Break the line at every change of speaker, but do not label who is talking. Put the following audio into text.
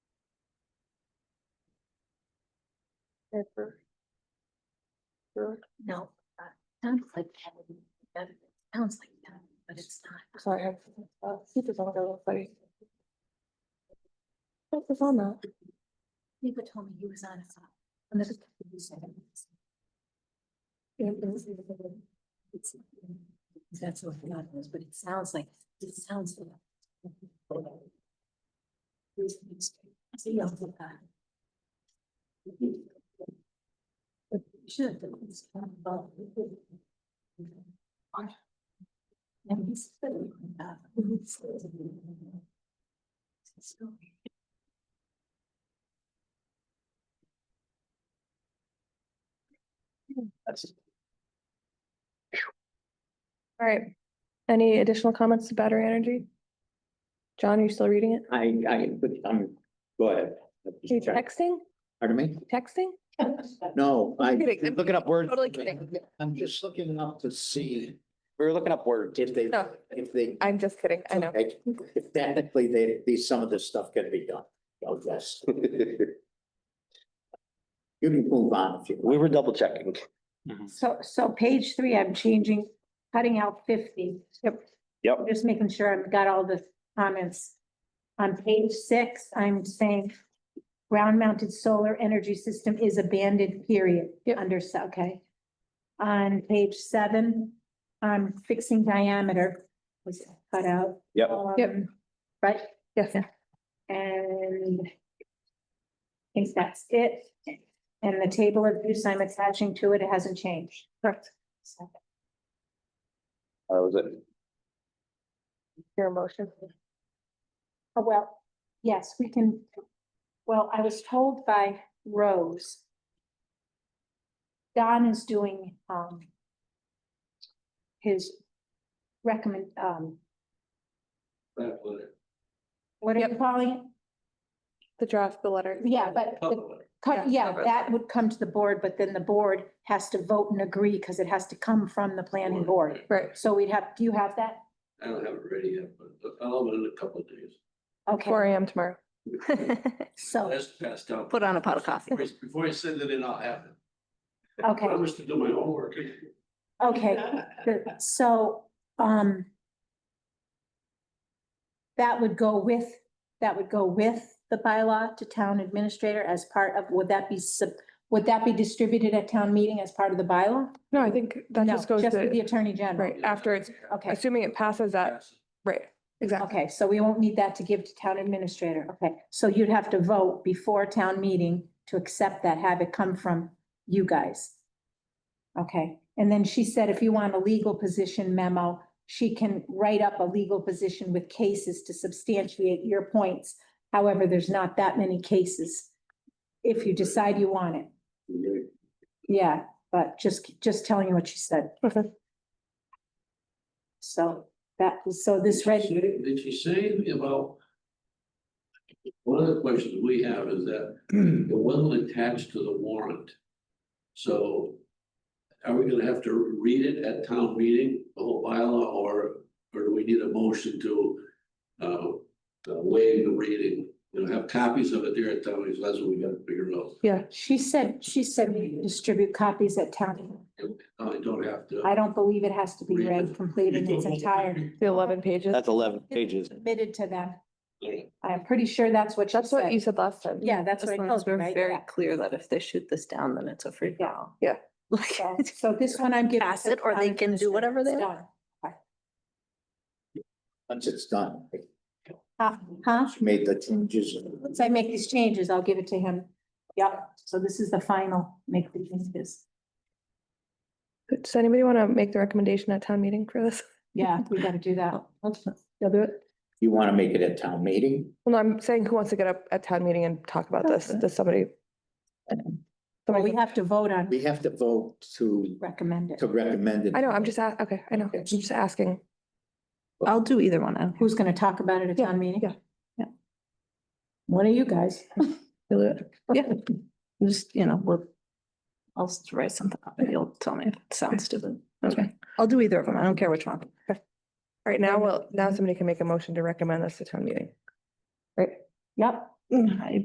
Pepper. Sure.
No, uh, sounds like, that would be better. sounds like that, but it's not.
Sorry, I have, uh, speakers on, go, sorry. What was on that?
Nico told me he was on a, on the. It's- That's what God was, but it sounds like, it sounds like. Should. And he's.
All right. Any additional comments to battery energy? John, are you still reading it?
I, I, but, um, go ahead.
Are you texting?
Pardon me?
Texting?
No, I,
kidding. I'm
looking up words.
totally kidding.
I'm just looking up to see. We were looking up words. If they,
No.
if they.
I'm just kidding. I know.
Like, If technically they, these, some of this stuff can be done, I'll guess. You can move on if you.
We were double checking. Mm-hmm.
So, so page three, I'm changing, cutting out fifty. Yep.
Yep.
Just making sure I've got all the comments. On page six, I'm saying ground mounted solar energy system is abandoned, period, under, s- okay. On page seven, I'm fixing diameter was cut out.
Yep.
Yep.
Um, Right,
Yes.
and I think that's it. And the table of use I'm attaching to it, it hasn't changed. Correct.
That was it.
Your emotion.
Oh, well, yes, we can, well, I was told by Rose. Don is doing, um, his recommend, um, what are you
Yep.
calling it?
The draft, the letter.
Yeah, but the
Yeah,
cut, yeah,
cover
that would come to the board, but then the board has to vote and agree because it has to come from the planning board.
Right.
So we'd have, do you have that?
I don't have it ready yet, but I'll have it in a couple of days.
Four
Okay,
AM tomorrow.
so,
That's passed out.
Oh. Put on a pot of coffee.
Before- Before I send it in, I'll have it. I
okay,
promise to do my homework.
okay. Good. So, um. That would go with, that would go with the bylaw to town administrator as part of, would that be sub, would that be distributed at town meeting as part of the bylaw?
No, I think that
No,
just goes
with The
to,
attorney general.
right, after it's,
uh,
Okay,
assuming it passes that,
Yes.
right, exactly.
okay, so we won't need that to give to town administrator. Okay, so you'd have to vote before town meeting to accept that, have it come from you guys. Okay, and then she said if you want a legal position memo, she can write up a legal position with cases to substantiate your points. However, there's not that many cases if you decide you want it. Yeah, but just, just telling you what she said.
Okay.
So that, so this
Did she
ready,
say- Did she say anything about? One of the questions we have is that it wasn't attached to the warrant. So are we gonna have to read it at town meeting, the whole bylaw, or, or do we need a motion to uh, uh, waive the reading? You know, have copies of it there at town meeting, so that's what we gotta figure out.
she said, she said we distribute copies at town.
I don't have to.
I don't believe it has to be read complete in its entirety.
The eleven pages.
That's eleven pages.
Submitted to them.
Okay.
I'm pretty sure that's what she
That's what you
said.
said last time.
Yeah, that's
As
what I
long as
told you,
we're
right?
very
Yeah.
clear that if they shoot this down, then it's a free for all.
Yeah.
Like,
So- So this one I'm giving.
Pass
to
it, or they
town
can do whatever they
administrator.
Once it's done,
It's done. Huh?
she made the changes.
Once I make these changes, I'll give it to him. Yep, so this is the final, make the changes.
Does anybody want to make the recommendation at town meeting for this?
Yeah, we gotta do that.
You'll do it?
You want to make it a town meeting?
Well, no, I'm saying who wants to get up at town meeting and talk about this? Does somebody?
But we
Somebody,
have to vote on,
We have to vote to,
recommend it.
to recommend it.
I know, I'm just, a- okay, I know, I'm just asking.
I'll do either one. I don't care.
Who's gonna talk about it at
Yeah,
town meeting?
yeah.
Yeah. One of you guys.
You'll do it. Yeah, just, you know, we'll, I'll s- write something up and you'll tell me if it sounds stupid. Okay, I'll do either of them. I don't care which one.
All right, now, well, now somebody can make a motion to recommend this to town meeting.
Yep.
I